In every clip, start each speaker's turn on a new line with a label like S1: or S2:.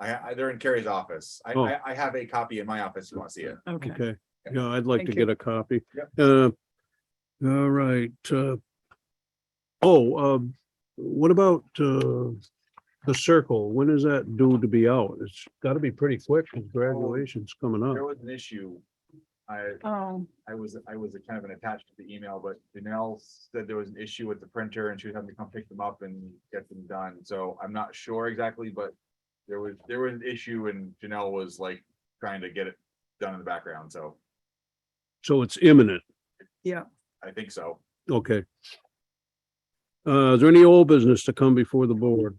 S1: I, I, they're in Carrie's office. I,
S2: Oh.
S1: I, I have a copy in my office. if You want to see it?
S3: Okay.
S2: Okay, yeah, I'd like to
S3: Thank you.
S2: get a copy.
S1: Yep.
S2: Uh, all right, uh. Oh, um, what about, uh, the circle? When is that due to be out? It's gotta be pretty quick, 'cause graduation's coming
S1: There
S2: up.
S1: was an issue. I,
S3: Oh,
S1: I was, I was kind of an attached to the email, but Danelle said there was an issue with the printer and she was having to come pick them up and get them done. So I'm not sure exactly, but there was, there was an issue and Janelle was like trying to get it done in the background. So
S2: So it's imminent,
S1: I think so.
S2: okay. Uh, is there any old business to come before the board?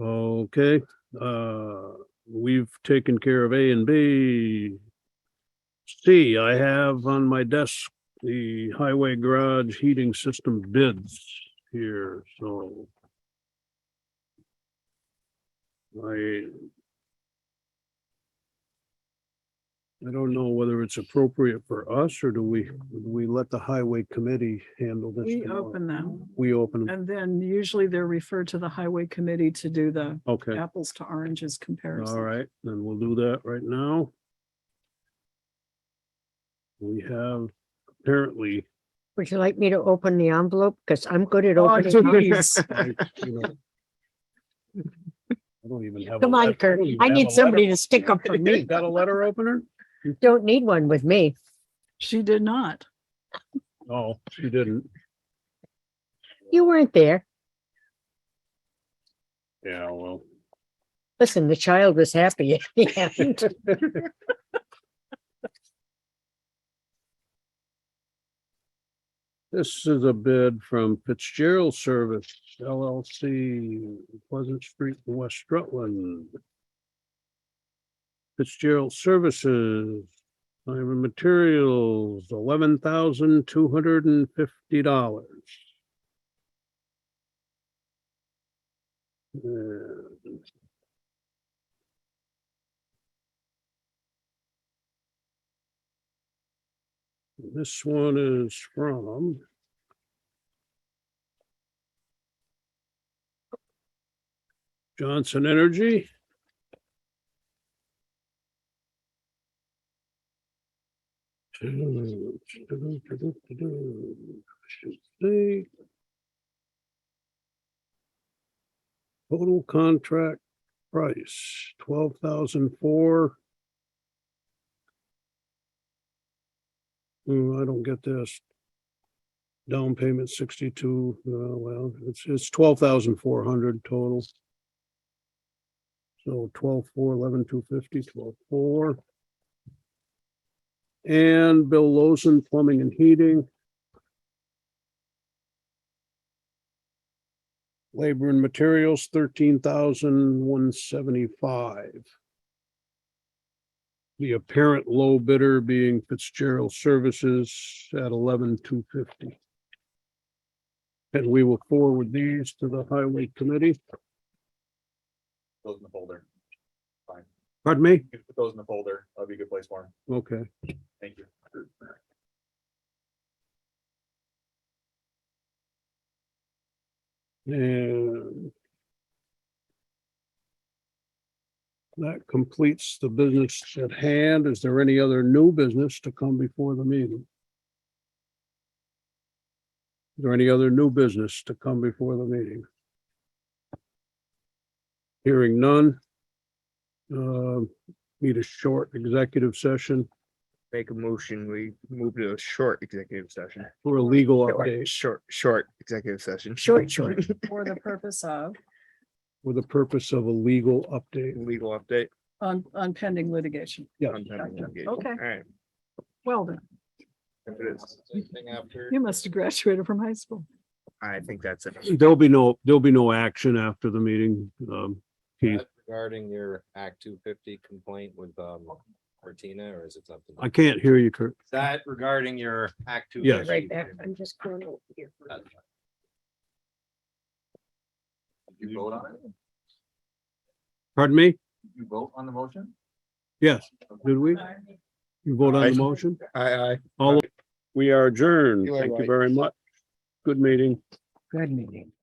S2: Okay, uh, we've taken care of A and B. C, I have on my desk the highway garage heating system bids here, so. I. I don't know whether it's appropriate for us or do we, we let the highway committee handle this?
S3: we
S2: tomorrow?
S3: open them
S2: We open, them.
S3: and then usually they're referred to the highway committee to do the
S2: okay.
S3: apples to oranges comparison.
S2: All right, then we'll do that right now. We have apparently.
S4: Would you like me to open the envelope? Because I'm good at
S3: Oh,
S4: opening.
S3: geez. Yes.
S4: up.
S2: I you know, I don't even have. a
S4: Come on,
S2: let-
S4: Kurt,
S2: don't even
S4: I
S2: have
S4: need
S2: a
S4: somebody
S2: letter-
S4: to stick up for me.
S2: Got a letter opener?
S4: Don't need one with me.
S3: She did not.
S2: No, Oh, she didn't.
S4: You weren't there.
S2: Yeah, well.
S4: Listen, the child was happy. at the end.
S2: This is a bid from Fitzgerald Service LLC, Pleasant Street, West Rutland. Fitzgerald Services, Time and Materials, eleven thousand two hundred and fifty dollars. This one is from Johnson Energy. Should say Total contract price, twelve thousand four. Hmm, I don't get this. Down payment sixty-two, uh, well, it's, it's twelve thousand four hundred total. So twelve, four, eleven, two fifty, twelve, four. And Bill Lawson Plumbing and Heating. Labor and Materials, thirteen thousand one seventy-five. The apparent low bidder being Fitzgerald Services at eleven two fifty. And we will forward these to the Highway Committee.
S1: Those in the folder.
S2: Pardon me?
S1: You can put those in the folder. That'd be a good place for them.
S2: Okay.
S1: Thank you.
S2: And that completes the business at hand. Is there any other new business to come before the meeting? Is there any other new business to come before the meeting? Hearing none. Uh, Need a short executive session
S5: Make a motion, we move to a short executive session.
S2: for a legal
S5: Short-
S2: update
S5: Short, short executive session.
S4: Short, short.
S3: For the purpose of,
S2: for the purpose of a legal update.
S5: Legal update.
S3: on, on pending litigation.
S2: Yeah.
S5: on pending litigation.
S3: Okay.
S5: All right.
S3: Well, then,
S1: If it is. Anything after?
S3: you must have graduated from high school.
S5: I think that's it.
S2: There'll be no, there'll be no action after the meeting. Um, Keith,
S6: That Regarding your Act two fifty complaint with um Martina, or is it something?
S2: I can't hear you, Kurt.
S6: That regarding your Act two.
S2: Yes.
S4: Right back, I'm just going over here.
S1: Did You vote on it?
S2: Pardon me?
S1: Did You vote on the motion?
S2: Yes, did we? You vote on the motion?
S5: Aye, aye.
S2: All, we are adjourned.
S5: You are
S2: Thank you
S5: right.
S2: very much. Good meeting.
S4: Good meeting.